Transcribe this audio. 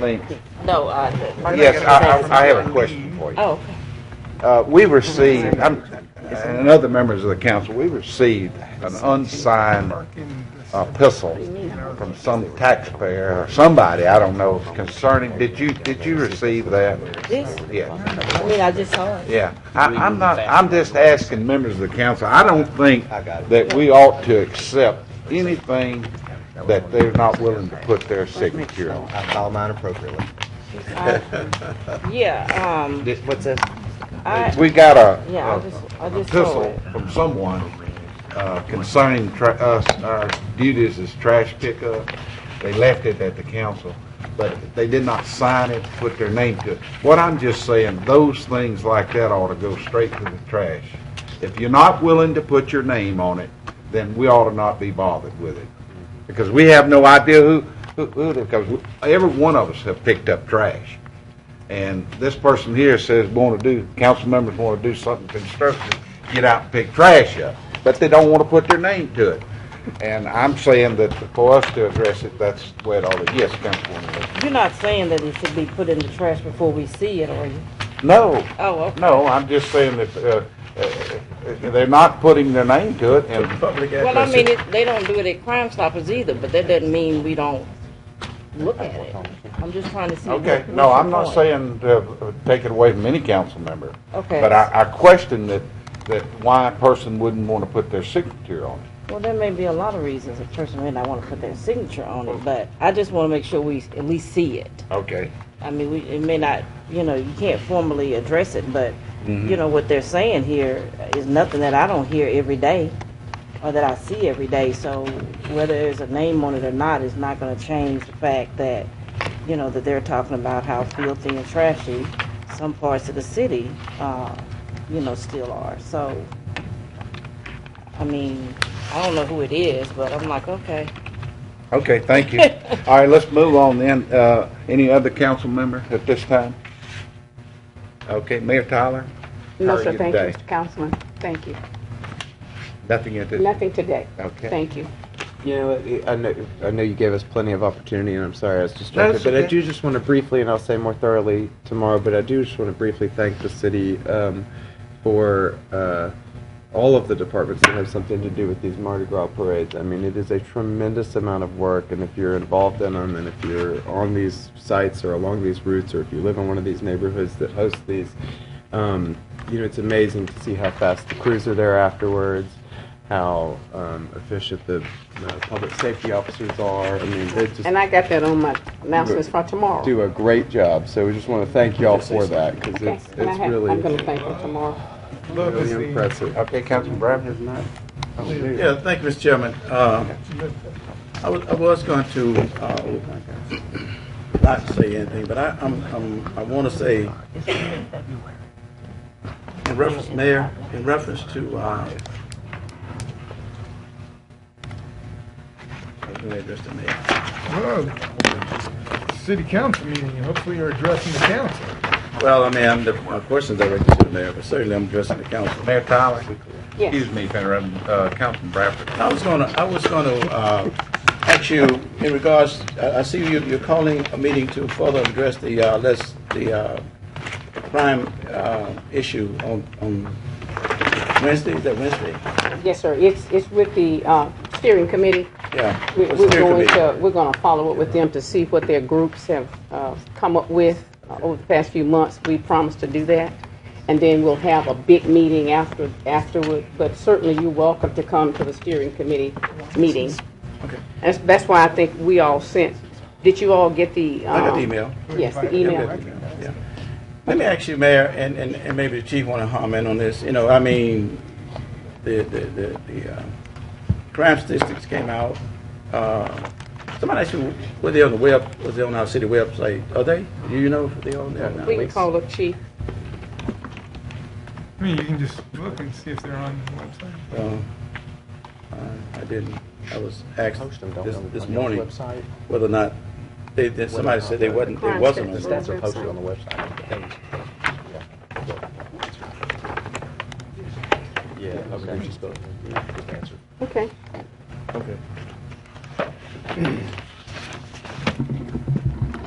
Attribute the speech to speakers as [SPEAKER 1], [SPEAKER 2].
[SPEAKER 1] Link.
[SPEAKER 2] No, uh, the-
[SPEAKER 1] Yes, I, I- I have a question for you.
[SPEAKER 2] oh, okay.
[SPEAKER 1] Uh, we received, I'm, and other members of the council, we received an unsigned uh, epistle from some taxpayer or somebody, I don't know, concerning, did you, did you receive that?
[SPEAKER 2] This,
[SPEAKER 1] Yeah,
[SPEAKER 2] I mean, I just saw it.
[SPEAKER 1] yeah. I, I'm not, I'm just asking members of the council, I don't think that we ought to accept anything that they're not willing to put their signature on.
[SPEAKER 3] I file mine appropriately.
[SPEAKER 2] Yeah, um,
[SPEAKER 3] What's this?
[SPEAKER 2] I,
[SPEAKER 1] We got a.
[SPEAKER 2] yeah, I just, I just saw
[SPEAKER 1] epistle
[SPEAKER 2] it.
[SPEAKER 1] from someone uh, concerning tra- us, our duties as trash pickup. They left it at the council, but they did not sign it, put their name to it. What I'm just saying, those things like that ought to go straight to the trash. If you're not willing to put your name on it, then we ought to not be bothered with it. Because we have no idea who, who, who, because every one of us have picked up trash. And this person here says want to do, council members want to do something constructive, get out and pick trash up, but they don't want to put their name to it. And I'm saying that for us to address it, that's the way it ought to, yes, Councilwoman. Lee.
[SPEAKER 2] You're not saying that it should be put in the trash before we see it, are you?
[SPEAKER 1] No,
[SPEAKER 2] Oh, okay.
[SPEAKER 1] no, I'm just saying that, uh, uh, they're not putting their name to it and.
[SPEAKER 2] Well, I mean, it, they don't do it at Crime Stoppers either, but that doesn't mean we don't look at it. I'm just trying to see. what-
[SPEAKER 1] Okay,
[SPEAKER 2] what's
[SPEAKER 1] no,
[SPEAKER 2] the
[SPEAKER 1] I'm not
[SPEAKER 2] point?
[SPEAKER 1] saying to uh, take it away from any council member.
[SPEAKER 2] Okay.
[SPEAKER 1] But I, I question that, that why a person wouldn't want to put their signature on it.
[SPEAKER 2] Well, there may be a lot of reasons a person may not want to put their signature on it, but I just want to make sure we at least see it.
[SPEAKER 1] Okay.
[SPEAKER 2] I mean, we, it may not, you know, you can't formally address it, but, you know, what they're saying here is nothing that I don't hear every day or that I see every day. So whether there's a name on it or not is not going to change the fact that, you know, that they're talking about how filthy and trashy some parts of the city, uh, you know, still are. So, I mean, I don't know who it is, but I'm like, okay.
[SPEAKER 1] Okay, thank you. All right, let's move on then. Uh, Any other council member at this time? Okay, Mayor Tyler?
[SPEAKER 4] No,
[SPEAKER 1] How are
[SPEAKER 4] sir,
[SPEAKER 1] you
[SPEAKER 4] thank you,
[SPEAKER 1] today?
[SPEAKER 4] Mr. Councilman. Thank you.
[SPEAKER 1] Nothing at this,
[SPEAKER 4] Nothing today.
[SPEAKER 1] okay.
[SPEAKER 4] Thank you.
[SPEAKER 3] You know, I- I know, I know you gave us plenty of opportunity, and I'm sorry I was distracted,
[SPEAKER 1] That's
[SPEAKER 3] but I
[SPEAKER 1] okay.
[SPEAKER 3] do just want to briefly, and I'll say more thoroughly tomorrow, but I do just want to briefly thank the city um, for uh, all of the departments that have something to do with these Mardi Gras parades. I mean, it is a tremendous amount of work, and if you're involved in them, and if you're on these sites or along these routes, or if you live in one of these neighborhoods that host these, um, you know, it's amazing to see how fast the crews are there afterwards. how um, efficient the uh, public safety officers are. I mean, they just
[SPEAKER 4] And I got that on my announcements for tomorrow.
[SPEAKER 3] do a great job. So we just want to thank y'all for that because
[SPEAKER 4] Okay,
[SPEAKER 3] it's,
[SPEAKER 4] and I
[SPEAKER 3] it's
[SPEAKER 4] have, I'm gonna
[SPEAKER 3] really,
[SPEAKER 4] thank you tomorrow.
[SPEAKER 3] really impressive.
[SPEAKER 1] Okay, Councilman Brown?
[SPEAKER 3] Isn't that?
[SPEAKER 5] Yeah, thank you, Mr. Chairman. Uh, I was, I was going to, uh, not say anything, but I, I'm, I'm, I want to say, in reference, Mayor, in reference to, uh, I was gonna address the mayor.
[SPEAKER 6] Well, City council meeting, and hopefully you're addressing the council.
[SPEAKER 5] Well, I mean, I'm, the- my question's directed to the mayor, but certainly I'm addressing the council.
[SPEAKER 1] Mayor Tyler?
[SPEAKER 4] Yes.
[SPEAKER 1] Excuse me, if I interrupted, uh, Councilman Bradford.
[SPEAKER 5] I was gonna, I was gonna uh, ask you in regards, I I see you, you're calling a meeting to further address the, uh, less, the uh, crime uh, issue on, on Wednesday, is that Wednesday?
[SPEAKER 4] Yes, sir. It's, it's with the, uh, steering committee.
[SPEAKER 5] Yeah.
[SPEAKER 4] We-
[SPEAKER 5] the
[SPEAKER 4] We're
[SPEAKER 5] steering
[SPEAKER 4] going
[SPEAKER 5] committee.
[SPEAKER 4] to, we're gonna follow up with them to see what their groups have, uh, come up with uh, over the past few months. We promised to do that. And then we'll have a big meeting after, afterward, but certainly you're welcome to come to the steering committee meeting.
[SPEAKER 5] Okay.
[SPEAKER 4] That's, that's why I think we all sent, did you all get the?
[SPEAKER 5] I got the
[SPEAKER 4] um,
[SPEAKER 5] email.
[SPEAKER 4] Yes, the
[SPEAKER 5] Yeah,
[SPEAKER 4] email.
[SPEAKER 5] good, yeah. Let me ask you, Mayor, and, and and maybe the chief want to comment on this, you know, I mean, the, the, the, the uh, crime statistics came out. Uh, Somebody asked you, were they on the web, was they on our city website? Are they? Do you know if they on there? now?
[SPEAKER 4] We can call up chief.
[SPEAKER 6] I mean, you can just look and see if they're on the website.
[SPEAKER 5] Uh, I didn't, I was asked
[SPEAKER 3] Post them, don't
[SPEAKER 5] this,
[SPEAKER 3] they,
[SPEAKER 5] this
[SPEAKER 3] on your
[SPEAKER 5] morning
[SPEAKER 3] website?
[SPEAKER 5] whether or not, they, that somebody said they wasn't, they
[SPEAKER 4] Crime
[SPEAKER 5] wasn't on
[SPEAKER 4] statistics.
[SPEAKER 5] there.
[SPEAKER 4] That's are posted on the
[SPEAKER 3] website. Yeah, okay.
[SPEAKER 4] Okay.
[SPEAKER 5] Okay.